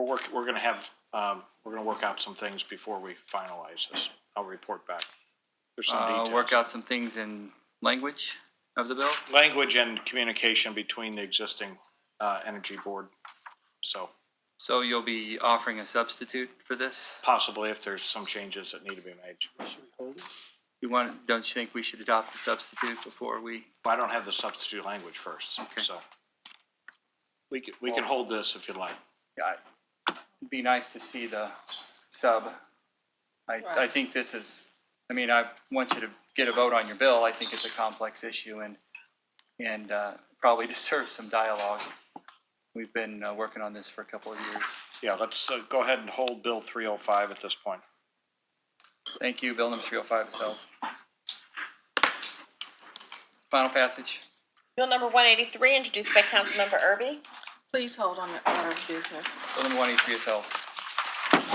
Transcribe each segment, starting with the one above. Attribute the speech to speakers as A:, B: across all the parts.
A: We're work, we're gonna have, um, we're gonna work out some things before we finalize this. I'll report back. There's some
B: Uh, work
A: details.
B: out some things in language of the bill.
A: Language and communication between the existing, uh, energy board. So
B: So you'll be offering a substitute for this?
A: possibly if there's some changes that need to be made.
B: You want, don't you think we should adopt the substitute before we?
A: I don't have the substitute language first,
B: Okay.
A: so. We can, we can hold this if you'd like.
B: Yeah. It'd be nice to see the sub. I, I think this is, I mean, I want you to get a vote on your bill. I think it's a complex issue and, and, uh, probably deserves some dialogue. We've been, uh, working on this for a couple of years.
A: Yeah, let's, uh, go ahead and hold Bill three oh five at this point.
B: Thank you. Bill number three oh five is held. Final passage.
C: Bill number one eighty-three, introduced by Councilmember Erby.
D: Please hold on the order of business.
B: Bill number one eighty-three is held.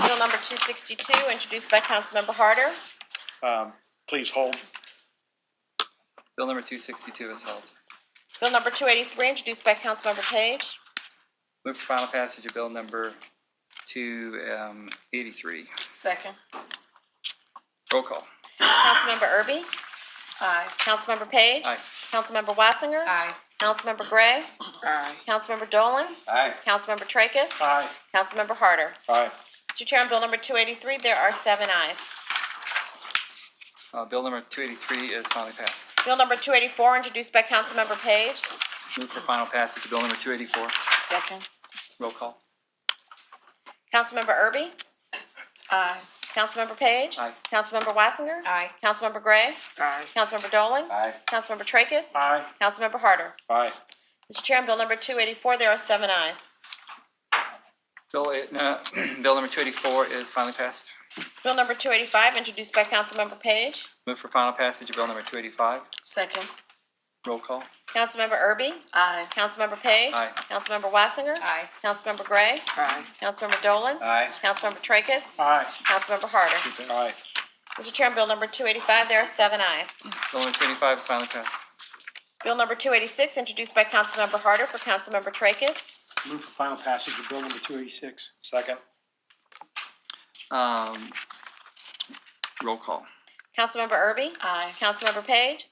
C: Bill number two sixty-two, introduced by Councilmember Harder.
A: Um, please hold.
B: Bill number two sixty-two is held.
C: Bill number two eighty-three, introduced by Councilmember Page.
B: Move for final passage of bill number two um, eighty-three.
D: Second.
B: Roll call.
C: Councilmember Erby?
D: Aye.
C: Councilmember Page?
B: Aye.
C: Councilmember Wassinger? Councilmember Gray?
D: Aye.
C: Councilmember Dolan?
A: Aye.
C: Councilmember Tracus?
A: Aye.
C: Councilmember Harder?
A: Aye.
C: Mr. Chair, on bill number two eighty-three, there are seven ayes.
B: Uh, bill number two eighty-three is finally passed.
C: Bill number two eighty-four, introduced by Councilmember Page.
B: Move for final passage of bill number two eighty-four.
D: Second.
B: Roll call.
C: Councilmember Erby?
D: Aye.
C: Councilmember Page?
B: Aye.
C: Councilmember Wassinger?
D: Aye.
C: Councilmember Gray?
D: Aye.
C: Councilmember Dolan?
A: Aye.
C: Councilmember Tracus?
A: Aye.
C: Councilmember Harder.
A: Aye.
C: Mr. Chair, on bill number two eighty-four, there are seven ayes.
B: Bill, eight- uh, bill number two eighty-four is finally passed.
C: Bill number two eighty-five, introduced by Councilmember Page.
B: Move for final passage of bill number two eighty-five.
D: Second.
B: Roll call.
C: Councilmember Erby?
D: Aye.
C: Councilmember Page?
B: Aye.
C: Councilmember Wassinger?
D: Aye.
C: Councilmember Gray?
D: Aye.
C: Councilmember Dolan?
A: Aye.
C: Councilmember Tracus?
A: Aye.
C: Councilmember Harder.
A: Aye.
C: Mr. Chair, on bill number two eighty-five, there are seven ayes.
B: Bill number two eighty-five is finally passed.
C: Bill number two eighty-six, introduced by Councilmember Harder for Councilmember Tracus.
E: Move for final passage of bill number two eighty-six.
A: Second.
B: Um, roll call.
C: Councilmember Erby?
D: Aye.
C: Councilmember Page?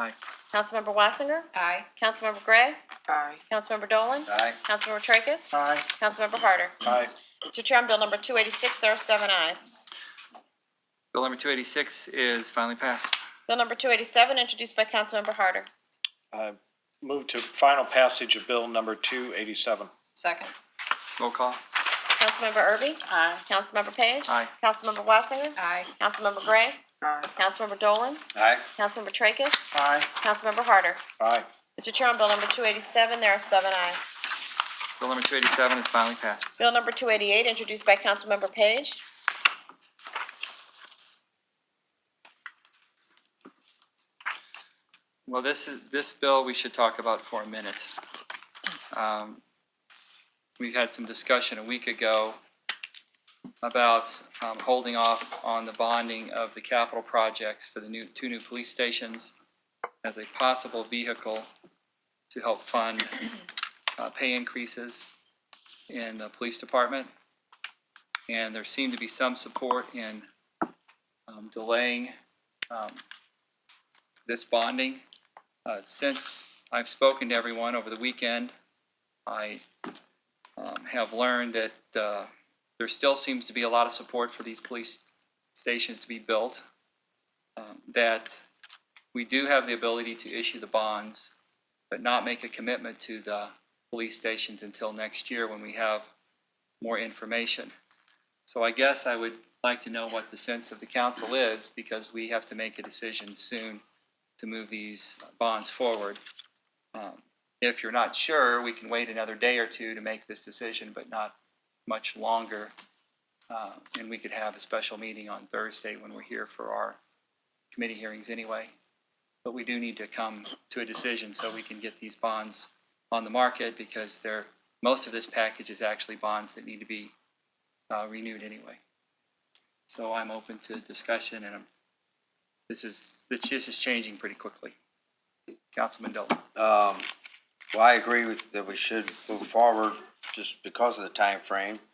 B: Aye.
C: Councilmember Wassinger?
D: Aye.
C: Councilmember Gray?
D: Aye.
C: Councilmember Dolan?
B: Aye.
C: Councilmember Tracus?
E: Aye.
C: Councilmember Harder.
A: Aye.
C: Mr. Chair, on bill number two eighty-six, there are seven ayes.
B: Bill number two eighty-six is finally passed.
C: Bill number two eighty-seven, introduced by Councilmember Harder.
A: Uh, Move to final passage of bill number two eighty-seven.
D: Second.
B: Roll call.
C: Councilmember Erby?
D: Aye.
C: Councilmember Page?
B: Aye.
C: Councilmember Wassinger?
D: Aye.
C: Councilmember Gray?
D: Aye.
C: Councilmember Dolan?
A: Aye.
C: Councilmember Tracus?
E: Aye.
C: Councilmember Harder.
A: Aye.
C: Mr. Chair, on bill number two eighty-seven, there are seven ayes.
B: Bill number two eighty-seven is finally passed.
C: Bill number two eighty-eight, introduced by Councilmember Page.
B: Well, this is, this bill we should talk about for a minute. Um, We had some discussion a week ago about um, holding off on the bonding of the capital projects for the new, two new police stations as a possible vehicle to help fund uh, pay increases in the police department. And there seemed to be some support in um, delaying um, this bonding. Uh, since I've spoken to everyone over the weekend, I um, have learned that uh, there still seems to be a lot of support for these police stations to be built. Um, that we do have the ability to issue the bonds, but not make a commitment to the police stations until next year when we have more information. So I guess I would like to know what the sense of the council is because we have to make a decision soon to move these bonds forward. Um, If you're not sure, we can wait another day or two to make this decision, but not much longer. Uh, And we could have a special meeting on Thursday when we're here for our committee hearings anyway. But we do need to come to a decision so we can get these bonds on the market because they're, most of this package is actually bonds that need to be uh, renewed anyway. So I'm open to discussion and I'm this is, this is changing pretty quickly. Councilman Dolan.
F: Um, well, I agree with, that we should move forward. just because of the time frame.